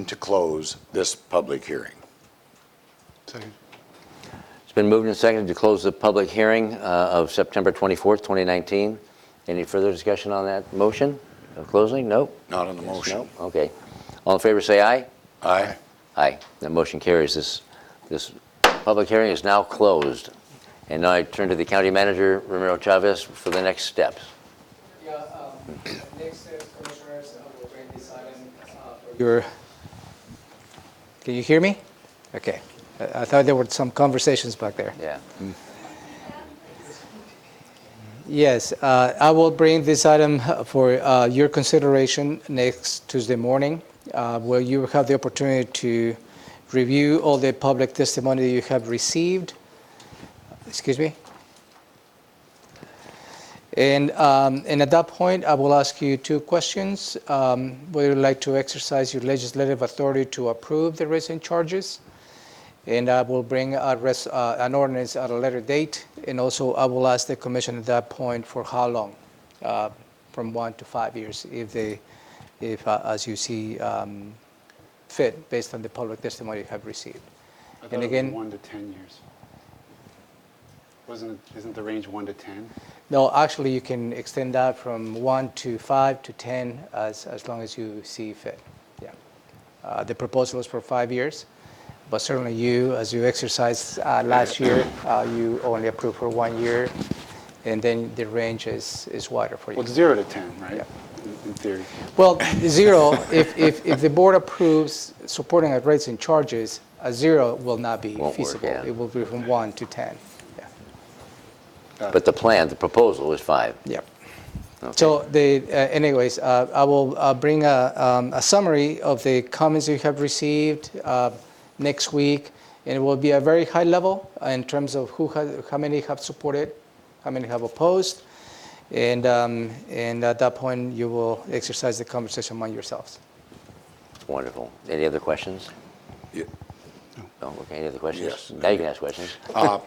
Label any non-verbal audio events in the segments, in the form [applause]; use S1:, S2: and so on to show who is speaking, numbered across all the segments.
S1: to close this public hearing.
S2: Second.
S3: It's been moved and seconded to close the public hearing uh, of September 24th, 2019. Any further discussion on that motion of closing? Nope?
S1: Not on the motion.
S3: Nope, okay. All in favor, say aye.
S1: Aye.
S3: Aye. That motion carries. This, this public hearing is now closed. And now I turn to the county manager, Romero Chavez, for the next steps.
S4: Yeah, um, next step, commissioners, uh, will bring this item uh, for your... Can you hear me? Okay. I I thought there were some conversations back there.
S3: Yeah.
S4: Yes, uh, I will bring this item for uh, your consideration next Tuesday morning, uh, where you have the opportunity to review all the public testimony you have received. Excuse me? And, um, and at that point, I will ask you two questions. Um, Would you like to exercise your legislative authority to approve the recent charges? And I will bring a res- uh, an ordinance at a later date, and also I will ask the commission at that point for how long, uh, from one to five years, if they, if, uh, as you see um, fit, based on the public testimony you have received.
S2: I thought
S4: And
S2: it was
S4: again,
S2: one to 10 years. Wasn't, it- isn't the range one to 10?
S4: No, actually, you can extend that from one to five to 10, as, as long as you see fit. Yeah. Uh, The proposal is for five years, but certainly you, as you exercised uh,
S3: [coughs]
S4: last year, uh, you only approved for one year, and then the range is, is wider for you.
S2: Well, it's zero to 10, right?
S4: Yeah.
S2: In in theory.
S4: Well, zero, if, if, if the board approves supporting at rates and charges, a zero will not be
S3: Won't work,
S4: feasible.
S3: yeah.
S4: It will be from one to 10. Yeah.
S3: But the plan, the proposal is five.
S4: Yep.
S3: Okay.
S4: So the, uh, anyways, uh, I will uh, bring a, um, a summary of the comments you have received uh, next week, and it will be a very high level uh, in terms of who has, how many have supported, how many have opposed, and um, and at that point you will exercise the conversation among yourselves.
S3: Wonderful. Any other questions?
S1: Yeah.
S3: No, okay, any other questions?
S1: Yes.
S3: Now you can ask questions.
S1: Uh,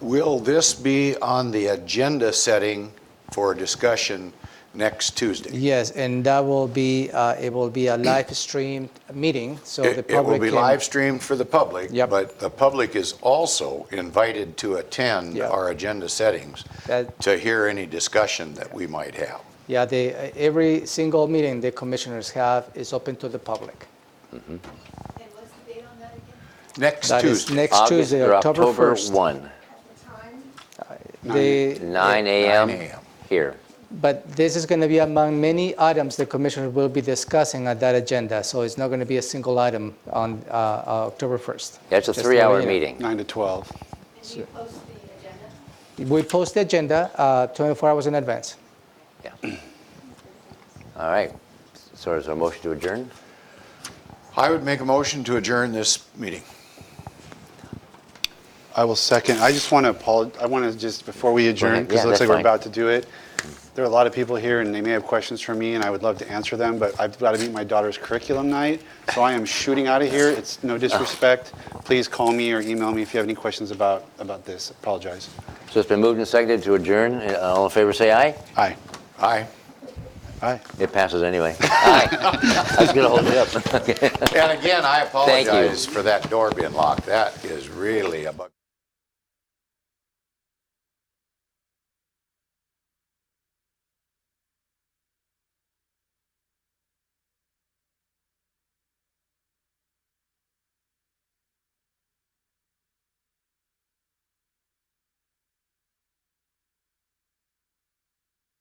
S1: Will this be on the agenda setting for discussion next Tuesday?
S4: Yes, and that will be uh, it will be a live streamed meeting, so the
S1: It
S4: public
S1: it will be
S4: can-
S1: live streamed for the public.
S4: Yep.
S1: But the public is also invited to attend
S4: Yeah.
S1: our agenda settings
S4: That-
S1: to hear any discussion that we might have.
S4: Yeah, they, every single meeting the commissioners have is open to the public.
S5: And what's the date on that again?
S1: Next
S4: That is
S1: Tuesday.
S4: next Tuesday,
S3: August- or
S4: October 1st.
S3: October 1,
S5: At the time?
S4: They-
S3: 9 a.m.
S1: 9 a.m.
S3: here.
S4: But this is going to be among many items the commissioners will be discussing at that agenda, so it's not going to be a single item on uh, uh, October 1st.
S3: Yeah, it's a
S4: Just to let
S3: three-hour
S4: you know.
S3: meeting.
S2: 9 to 12.
S5: And do you post the agenda?
S4: We post the agenda uh, 24 hours in advance.
S3: Yeah. All right. So is there a motion to adjourn?
S1: I would make a motion to adjourn this meeting.
S2: I will second. I just want to apologize. I want to just, before we adjourn,
S3: Yeah,
S2: because it looks
S3: that's
S2: like we're
S3: fine.
S2: about to do it, there are a lot of people here and they may have questions for me and I would love to answer them, but I've got to meet my daughter's curriculum night. So I am shooting out of here. It's no disrespect. Please call me or email me if you have any questions about, about this. Apologize.
S3: So it's been moved and seconded to adjourn. Uh, All in favor, say aye.
S2: Aye.
S1: Aye.
S2: Aye.
S3: It passes anyway. Aye. [laughs] I was going to hold it up.
S1: And again, I
S3: Thank you.
S1: apologize for that door being locked. That is really a bug.